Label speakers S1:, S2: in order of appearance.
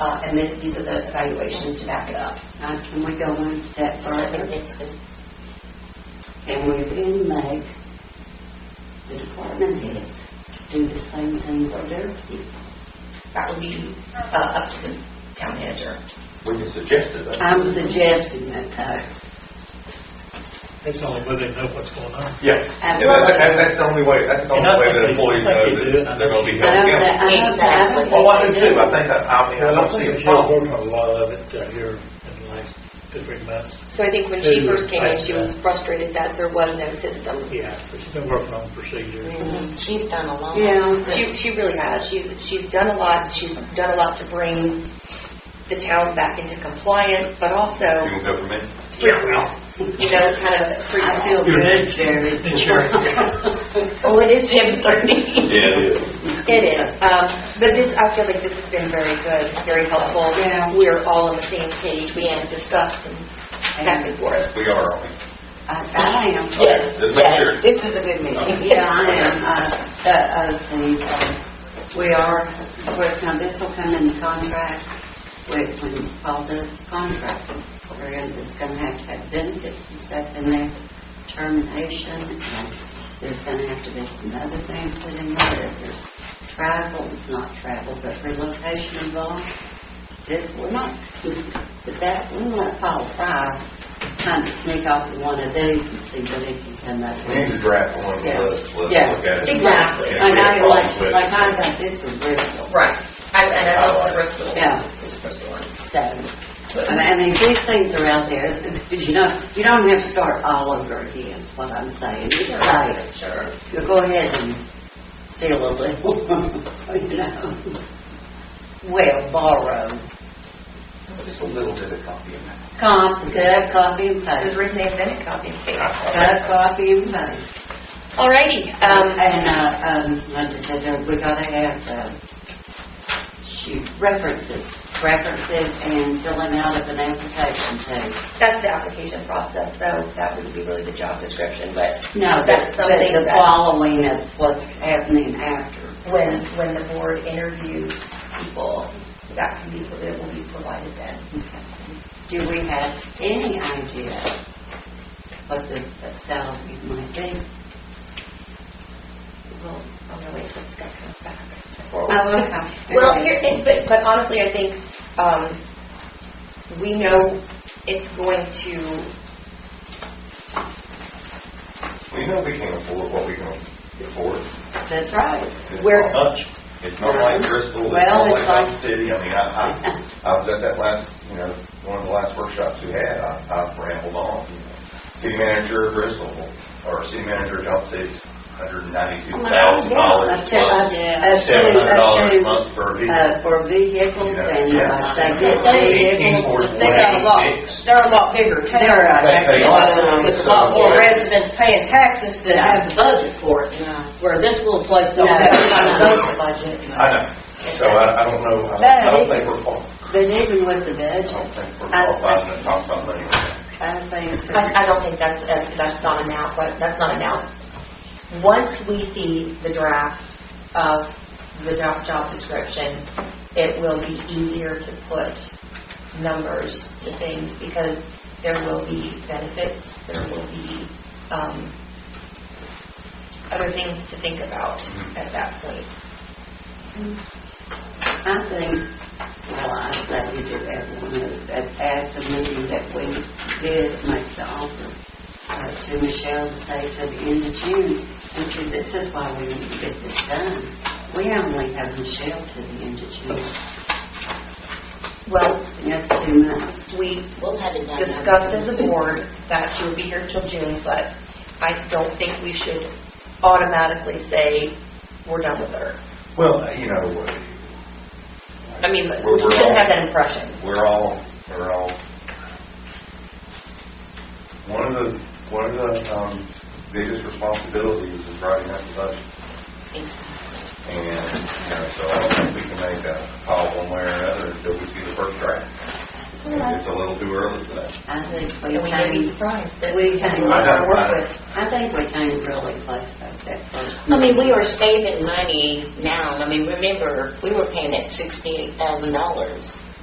S1: uh, and then these are the evaluations to back it up. Now, can we go one step
S2: I think
S1: further?
S2: that's good.
S1: And we can make the department heads do the same thing for their people.
S2: That would be uh, up to the town manager.
S3: We can suggest it, though.
S1: I'm suggesting that, uh, though.
S4: It's the only way they know what's going on.
S3: Yeah. Yeah,
S1: Absolutely.
S3: that- that- That's the only way, that's the
S4: And
S3: only
S4: I
S3: way
S4: think
S3: that
S4: they-
S3: employees
S4: I
S3: know
S4: think they do it.
S3: that they're going to be
S1: I
S3: held
S1: know
S3: accountable.
S1: that, I know that. I
S2: Exactly.
S1: don't
S3: Well, I do
S1: think they
S3: too, I think, that- I mean, I
S4: Well, I
S3: don't see
S4: think
S3: a
S4: she's worked
S3: problem.
S4: on a lot of it uh, here in the last two, three months.
S5: So I think when she
S4: Yeah,
S5: first came in,
S4: I-
S5: she was frustrated that there was no system. Mm-hmm.
S4: Yeah, but she's been working on procedures.
S2: She's done a lot.
S1: Yeah.
S5: She, she really has. She's, she's done a lot. She's done a lot to bring the town back into compliance, but
S3: You
S5: also,
S3: can go for me?
S5: you know, kind of free
S1: I feel good, Jerry.
S5: Oh, it is seven thirty.
S3: Yeah, it is.
S5: It is. Um, but this, I feel like this has been very good, very helpful.
S1: Yeah.
S5: We're all on the same page. We can
S2: Yes.
S5: discuss and back and forth.
S3: We are, aren't we?
S1: I, I am.
S3: Yes. Just make sure.
S2: This is a good meeting.
S1: Yeah, I am. Uh, That other thing, uh, we are, of course, now this will come in the contract, when when all this contract, we're in, it's going to have to have benefits and stuff in there, termination, and there's going to have to be some other things put in there. If there's travel, not travel, but relocation involved, this will not, but that will not fall fry. Kind of sneak off of one of these and see what it can come up
S3: We need
S1: with.
S3: to draft one,
S1: Yeah.
S3: let's, let's look
S1: Yeah.
S3: at it.
S2: Exactly.
S3: Okay,
S1: Like
S3: we have
S1: I,
S3: problems
S1: like,
S3: with it.
S1: like I got this from Bristol,
S2: Right. I- And
S3: Uh,
S2: I thought the rest of the
S1: Yeah.
S2: is supposed to work.
S1: so, I mean- I mean, these things are out there, you know, you don't have to start all over again, is what I'm saying. It's like,
S2: Sure.
S1: you go ahead and steal a little, you know. Well, borrow,
S3: Just a little bit of copy in that.
S1: comp, cut, copy and
S5: Does
S1: paste,
S5: Renee Bennett copy and paste?
S1: cut, copy and paste.
S5: Alrighty,
S1: Um,
S5: um,
S1: and, uh, um, I did- I did- we gotta have, uh, shoot, references, references and filling out of an application too.
S5: that's the application process, though, that would be really the job description, but
S1: No,
S5: that's
S1: but, but
S5: something
S1: the
S5: that,
S1: following of what's happening after.
S5: when, when the board interviews people, that can be, that will be provided then.
S1: Do we have any idea what the the salary might be?
S5: Well, I'm gonna wait till Scott comes back.
S1: Oh, okay.
S5: Well, here, and- but, but honestly, I think, um, we know it's going to,
S3: We know we can afford what we can afford.
S1: That's right.
S3: It's
S5: Where-
S3: not much. It's not like Bristol, it's
S1: Well,
S3: not
S1: it's
S3: like Dodge
S1: like-
S3: City. I mean, I, I, I was at that last, you know, one of the last workshops we had, I, I rambled on. you know. City manager of Bristol, or city manager of Dodge City, hundred and
S1: Oh
S3: ninety-two thousand dollars
S1: Up to- up-
S3: plus
S1: up to-
S3: seven hundred
S1: up
S3: dollars
S1: to,
S3: a month for a vehicle.
S1: Uh, for vehicles and,
S3: Yeah.
S1: uh, they get vehicles.
S3: Eighteen
S6: They got a lot,
S3: Eighty-six.
S6: they're a lot bigger too.
S1: They're, uh,
S3: They pay a lot more.
S6: With a lot more residents paying taxes that have the budget for it,
S1: Yeah.
S6: where this little place don't
S1: No,
S6: have
S1: no,
S6: kind
S1: no.
S6: of budget. budget.
S3: I know, so I, I don't know, I don't- I don't think we're, qual-
S1: But even with the
S3: I
S1: budget,
S3: don't think we're
S1: I-
S3: qualified to talk about money.
S1: I think,
S2: I, I don't think that's, uh, that's not an out, but that's not an out. Once we see the draft of the job, job description, it will be easier to put numbers to things because there will be benefits, there will be, um, other things to think about at that point.
S1: I think, well, I said we did that one, uh, at, at the meeting that we did make the offer uh, to Michelle to stay till the end of June, and see, this is why we need to get this done. We only have Michelle to the end of June,
S5: well,
S1: and that's two months.
S5: we
S2: We'll have it
S5: discussed as a board that she would be here till June, but I don't think we should automatically say, we're done with her.
S3: Well, you know,
S5: I mean, we
S3: We're- we're
S5: shouldn't
S3: all-
S5: have that impression.
S3: we're all, we're all. One of the, one of the um, biggest responsibilities is writing up the budget. And, you know, so I don't think we can make a call one way or another until we see the first draft.
S1: Well, I
S3: it's a little too early for that.
S1: I think
S5: And
S1: we
S5: we may be
S1: came,
S5: surprised that
S1: we
S5: we
S1: came,
S3: I
S1: I
S3: don't- I-
S1: think we came really close though, that first.
S7: I mean, we are saving money now. I mean, remember, we were paying that sixty-eight thousand dollars